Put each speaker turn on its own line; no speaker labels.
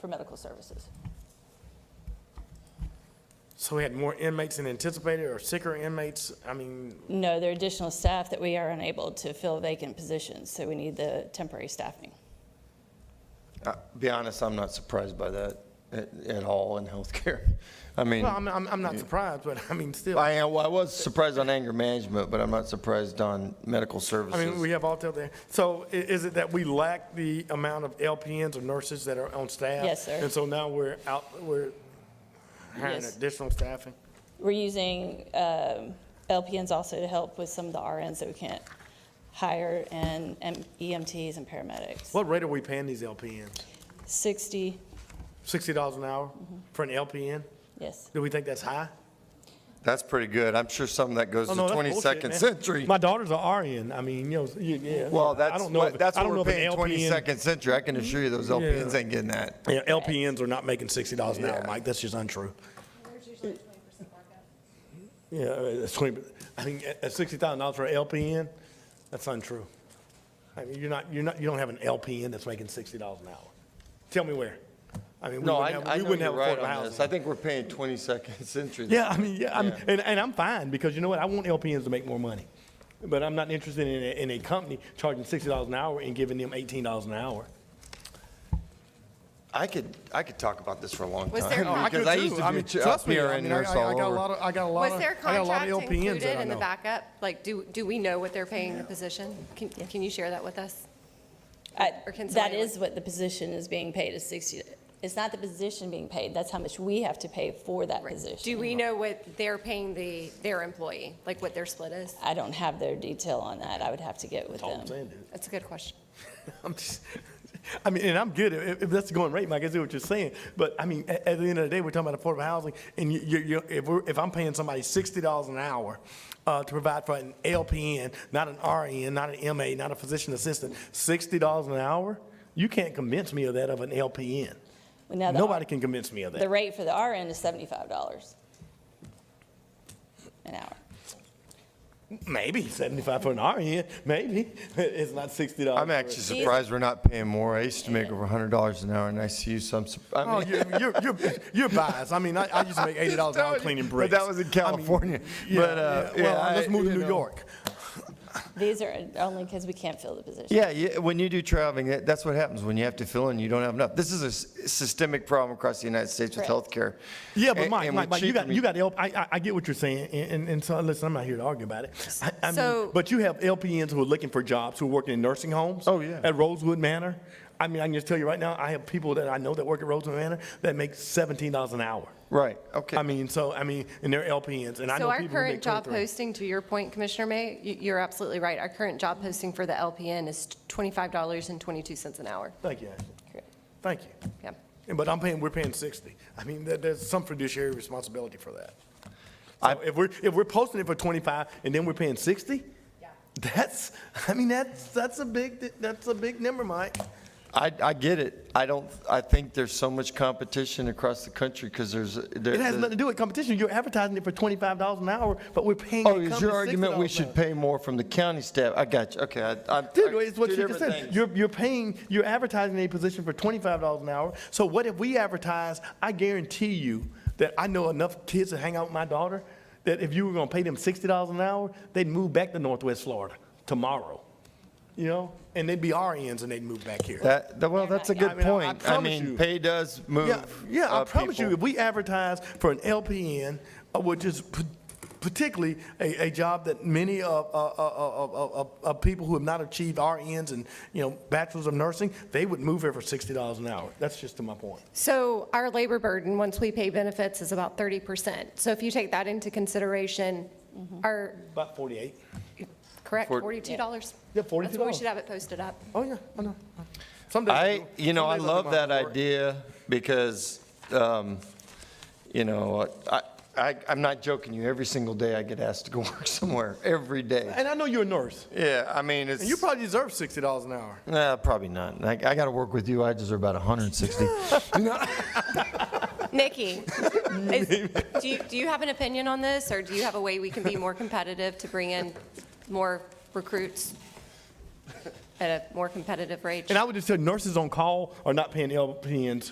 for medical services.
So we had more inmates than anticipated or sicker inmates? I mean,
No, there are additional staff that we are unable to fill vacant positions, so we need the temporary staffing.
Uh, Be honest, I'm not surprised by that at, at all in healthcare. I mean,
well, I'm, I'm, I'm not surprised, but I mean, still,
I
I
am, well, I was surprised on anger management, but I'm not surprised on medical
mean, we
services.
have all there. So i- is it that we lack the amount of LPNs or nurses that are on staff?
Yes, sir.
And so now we're out, we're hiring
Yes.
additional staffing?
We're using um, LPNs also to help with some of the RNs that we can't hire, and and EMTs and paramedics.
What rate are we paying these LPNs?
60,
Sixty dollars an hour
Mm-hmm.
for an LPN?
yes.
Do we think that's high?
That's pretty good. I'm sure something that goes
Oh,
to
no, that's bullshit,
22nd
man.
century.
My daughter's are RN. I mean, you know, you- yeah.
Well,
I
that's
don't know
what,
if-
that's
I
what
don't
we're
know if an
paying
LPN
22nd century. I can assure you those LPNs
Yeah.
ain't getting that.
Yeah, LPNs are not making sixty dollars an hour,
Yeah.
Mike, that's just untrue. Yeah, uh, it's twenty, I think, at- at sixty thousand dollars for an LPN, that's untrue. I mean, you're not, you're not, you don't have an LPN that's making sixty dollars an hour. Tell me where. I mean, we
No, I,
wouldn't have,
I
we
know
wouldn't
you're
have
right
affordable
on
housing.
this. I think we're paying 22nd century.
Yeah, I mean, yeah, I'm,
Yeah.
and, and I'm fine, because you know what, I want LPNs to make more money. But I'm not interested in a, in a company charging sixty dollars an hour and giving them eighteen dollars an hour.
I could, I could talk about this for a long
Was there- Oh,
time
I
because I used to be a ch- a PRN nurse all over.
of, I got a lot E
Was their contract included in the backup? Like, do, do we know what they're paying the position? Can, can you share that with us?
I-
Or can
That
somebody-
is what the position is being paid, is 60. It's not the position being paid, that's how much we have to pay for that
Do
position.
we know what they're paying the, their employee, like what their split is?
I don't have their detail on that, I would have to get with
All I'm
them.
saying, dude.
That's a good question.
I'm just, I mean, and I'm good, if, if that's the going rate, Mike, I see what you're saying, but I mean, at, at the end of the day, we're talking about affordable housing, and you, you, you, if we're, if I'm paying somebody sixty dollars an hour, uh, to provide for an LPN, not an RN, not an MA, not a physician assistant, sixty dollars an hour, you can't convince me of that of an LPN.
Now, the-
Nobody can convince me of
The
that.
rate for the RN is $75 an hour.
Maybe seventy-five for an RN, maybe, it's not sixty dollars.
I'm actually surprised we're not paying more. I used to make over $100 an hour and I see you some, sur- I
Oh,
mean-
you're, you're, you're, you're biased. I mean, I, I used to make eighty dollars an hour cleaning bricks.
But that was in
I mean,
California.
Yeah,
but uh,
yeah. well,
yeah,
let's
I-
move to
you
New
know.
York.
These are only because we can't fill the position.
Yeah, yeah, when you do traveling, that- that's what happens when you have to fill in, you don't have enough. This is a s- systemic problem across the United States with
Correct.
healthcare.
Yeah, but
And-
Mike,
and
Mike,
we
Mike, you
cheat
got
when
you
we-
got L- I, I, I get what you're saying, and, and, and so listen, I'm not here to argue about it. I, I mean,
So-
but you have LPNs who are looking for jobs who are working in nursing homes.
Oh, yeah.
At Rosewood Manor, I mean, I can just tell you right now, I have people that I know that work at Rosewood Manor that make seventeen dollars an hour.
Right, okay.
I mean, so I mean, and they're LPNs, and I know
So our
people who make
current job
23.
posting, to your point, Commissioner May, you- you're absolutely right. Our current job posting for the LPN is $25.22 an hour.
Thank you, Ashley.
Correct.
Thank you.
Yeah.
Yeah, But I'm paying, we're paying 60. I mean, there, there's some fiduciary responsibility for that.
I-
So if we're, if we're posting it for 25 and then we're paying 60? That's, I mean, that's, that's a big, that's a big number, Mike.
I, I get it. I don't, I think there's so much competition across the country because there's. there-
It has nothing to do with competition. You're advertising it for $25 an hour, but we're paying.
Oh,
the
is
company
your argument we
$60 an
should
hour.
pay more from the county staff? I got you, okay. I- I-
Dude,
I-
it's what
two
you just
different
said.
things.
You're, you're paying, you're advertising a position for twenty-five dollars an hour. So what if we advertise, I guarantee you that I know enough kids to hang out with my daughter, that if you were gonna pay them sixty dollars an hour, they'd move back to Northwest Florida tomorrow. You know, and they'd be RNs and they'd move back here.
That, that- well, that's a
not-
I mean,
good
I- I
point. I
promise
mean,
you.
pay does move.
Yeah, yeah, I
uh,
promise you,
people.
if we advertise for an LPN, uh, which is p- particularly a, a job that many of, uh, of, of, of- of, of uh, people who have not achieved RNs and, you know, bachelors of nursing, they would move here for sixty dollars an hour. That's just to my point.
So our labor burden, once we pay benefits, is about 30%. So if you take that into consideration, our,
About forty-eight.
correct,
For-
$42?
Yeah,
That's what we
$42.
should have it posted up.
Oh, yeah, I know. Some days
I,
do.
you know,
Some
I
days do
love
my
that
homework.
idea because, um, you know, I, I, I'm not joking you. Every single day I get asked to go work somewhere, every day.
And I know you're a nurse,
Yeah, I mean, it's.
and you probably deserve sixty dollars an hour.
Nah, probably not. I, I gotta work with you. I deserve about 160.
Nikki, is- do you, do you have an opinion on this, or do you have a way we can be more competitive to bring in more recruits at a more competitive rate?
And I would just say nurses on call are not paying LPNs